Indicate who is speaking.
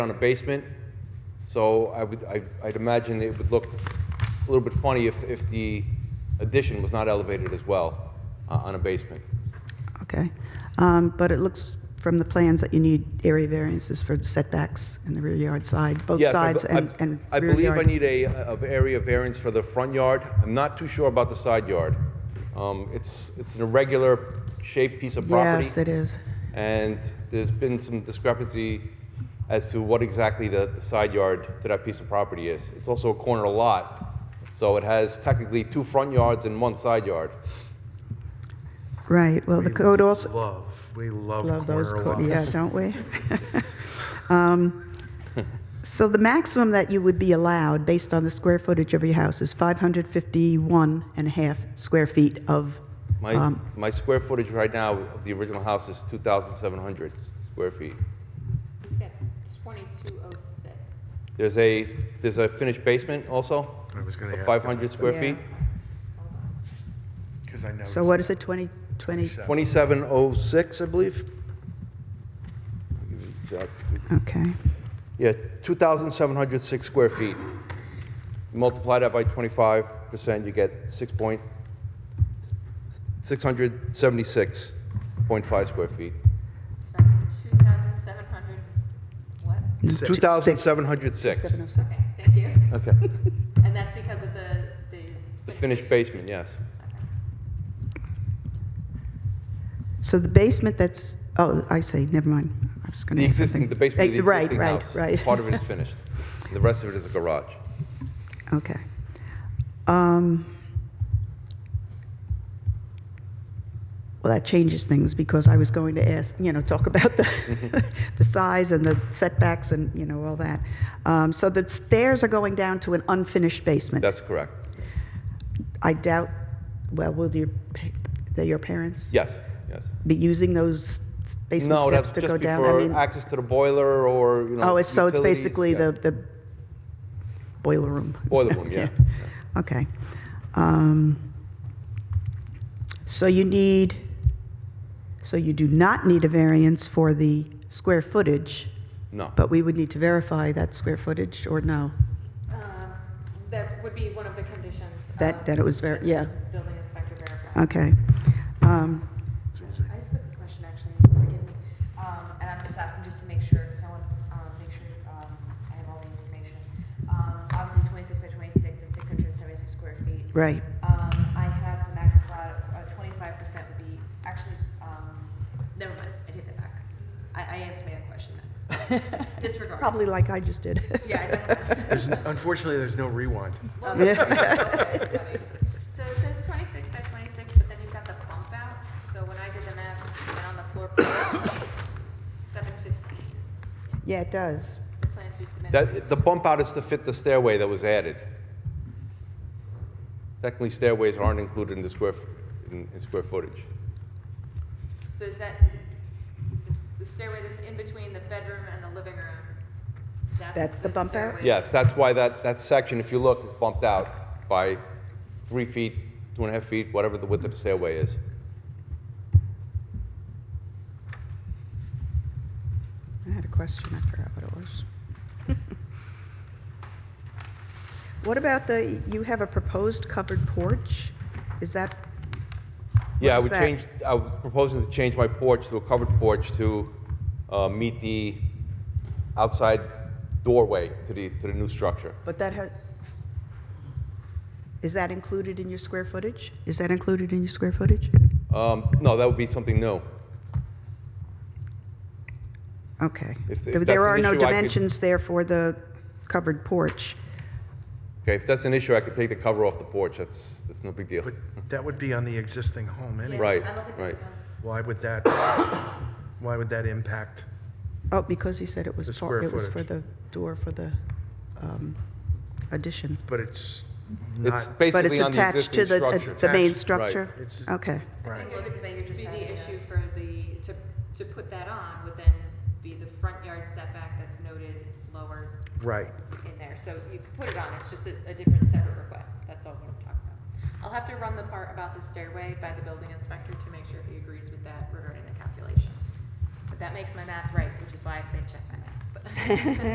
Speaker 1: on a basement, so I would, I- I'd imagine it would look a little bit funny if, if the addition was not elevated as well uh, on a basement.
Speaker 2: Okay. Um, But it looks from the plans that you need area variances for the setbacks and the rear yard side, both
Speaker 1: Yes, I
Speaker 2: sides
Speaker 1: be- I-
Speaker 2: and and
Speaker 1: I
Speaker 2: rear
Speaker 1: believe I
Speaker 2: yard.
Speaker 1: need a, of area variance for the front yard. I'm not too sure about the side yard. Um, It's, it's an irregular shaped piece of property.
Speaker 2: Yes, it is.
Speaker 1: And there's been some discrepancy as to what exactly the, the side yard to that piece of property is. It's also a corner lot, so it has technically two front yards and one side yard.
Speaker 2: Right, well, the
Speaker 3: We
Speaker 2: code also,
Speaker 3: Love, we love
Speaker 2: love those,
Speaker 3: corner
Speaker 2: co- yeah,
Speaker 3: lots.
Speaker 2: don't we? Um, So the maximum that you would be allowed, based on the square footage of your house, is 551 and a half square feet of,
Speaker 1: My, my square footage right now of the original house is 2,700 square feet.
Speaker 4: That's 2206.
Speaker 1: There's a, there's a finished basement also,
Speaker 3: I was gonna
Speaker 1: of
Speaker 3: ask
Speaker 1: 500 square
Speaker 2: Yeah.
Speaker 1: feet.
Speaker 3: Because I know.
Speaker 2: so what is it, 20, 20?
Speaker 1: 2706, I believe. I'll give you the exact figure.
Speaker 2: Okay,
Speaker 1: Yeah, 2,706 square feet. Multiply that by 25%, you get 6 point, 676.5 square feet.
Speaker 4: So it's 2,700, what?
Speaker 2: Six.
Speaker 1: 2,706.
Speaker 2: 706.
Speaker 4: Okay, thank you.
Speaker 1: Okay.
Speaker 4: And that's because of the, the.
Speaker 1: The finished basement, yes.
Speaker 2: So the basement that's, oh, I see, never mind. I was going
Speaker 1: The
Speaker 2: to ask
Speaker 1: existing,
Speaker 2: something.
Speaker 1: the basement of the
Speaker 2: Right,
Speaker 1: existing
Speaker 2: right,
Speaker 1: house.
Speaker 2: right.
Speaker 1: Part of it is finished. The rest of it is a garage.
Speaker 2: Okay. Um, Well, that changes things because I was going to ask, you know, talk about the, the size and the setbacks and, you know, all that. Um, So the stairs are going down to an unfinished basement.
Speaker 1: That's correct.
Speaker 2: I doubt, well, will your, pa- that your parents
Speaker 1: Yes, yes.
Speaker 2: be using those s- basement
Speaker 1: No,
Speaker 2: steps
Speaker 1: that's
Speaker 2: to go
Speaker 1: just
Speaker 2: down? I mean,
Speaker 1: before access to the boiler or, you know.
Speaker 2: Oh, it's, so it's
Speaker 1: utilities.
Speaker 2: basically
Speaker 1: Yeah.
Speaker 2: the, the boiler room.
Speaker 1: Boiler room, yeah.
Speaker 2: Okay. Um, So you need, so you do not need a variance for the square footage,
Speaker 1: No.
Speaker 2: but we would need to verify that square footage, or no?
Speaker 4: Um, That would be one of the conditions.
Speaker 2: That-
Speaker 4: of
Speaker 2: that it was ver-
Speaker 4: the
Speaker 2: yeah. Uh,
Speaker 4: Building inspector verified.
Speaker 2: Okay. Um,
Speaker 4: I just have a question, actually, forgive me. Um, And I'm just asking just to make sure, because I want to make sure um, I have all the information. Um, Obviously, 26 by 26 is 676 square feet.
Speaker 2: Right.
Speaker 4: Um, I have the max allowed, twenty-five percent would be, actually, um, never mind, I take that back. I, I answered my own question then. Disregard.
Speaker 2: Probably like I just did.
Speaker 4: Yeah, I never mind.
Speaker 3: There's- Unfortunately, there's no rewind.
Speaker 4: Well,
Speaker 2: Yeah.
Speaker 4: okay, okay. So it says twenty-six by twenty-six, but then you've got the bump out, so when I did the math, and on the floor plan, seven fifteen,
Speaker 2: Yeah, it does.
Speaker 4: the plans you submitted.
Speaker 1: That, the bump out is to fit the stairway that was added. Technically, stairways aren't included in the square, f- in, in square footage.
Speaker 4: So is that, it's the stairway that's in between the bedroom and the living room?
Speaker 2: That's the bump out?
Speaker 4: stairway.
Speaker 1: Yes, that's why that, that section, if you look, is bumped out by three feet, two and a half feet, whatever the width of the stairway is.
Speaker 2: I had a question, I forgot what it was. What about the, you have a proposed covered porch? Is that,
Speaker 1: Yeah, I
Speaker 2: What's
Speaker 1: would
Speaker 2: that?
Speaker 1: change, I was proposing to change my porch to a covered porch to, uh, meet the outside doorway to the, to the new structure.
Speaker 2: but that has, is that included in your square footage? Is that included in your square footage?
Speaker 1: Um, no, that would be something new.
Speaker 2: Okay.
Speaker 1: If- if
Speaker 2: There-
Speaker 1: that's
Speaker 2: There
Speaker 1: an
Speaker 2: are no
Speaker 1: issue, I could-
Speaker 2: dimensions there for the covered porch.
Speaker 1: Okay, if that's an issue, I could take the cover off the porch, that's, that's no big deal.
Speaker 3: But that would be on the existing home
Speaker 4: Yeah,
Speaker 3: anyway.
Speaker 1: Right,
Speaker 4: I don't think that
Speaker 1: right.
Speaker 4: counts.
Speaker 3: Why would that, why would that impact?
Speaker 2: Oh, because he said it was,
Speaker 3: The
Speaker 2: par-
Speaker 3: square
Speaker 2: it was for
Speaker 3: footage.
Speaker 2: the door for the um, addition.
Speaker 3: But it's not,
Speaker 1: It's
Speaker 2: But it's
Speaker 1: basically on the
Speaker 2: attached to
Speaker 1: existing
Speaker 2: the, uh,
Speaker 1: structure.
Speaker 2: the main
Speaker 3: Attached,
Speaker 2: structure?
Speaker 3: It's-
Speaker 2: Okay.
Speaker 4: I
Speaker 3: right,
Speaker 4: think it would be the issue for the, to, to put that on would then be the front yard setback that's noted lower
Speaker 3: right.
Speaker 4: in there. So you can put it on, it's just a, a different separate request, that's all we're talking about. I'll have to run the part about the stairway by the building inspector to make sure he agrees with that regarding the calculation. But that makes my math right, which is why I say check my math.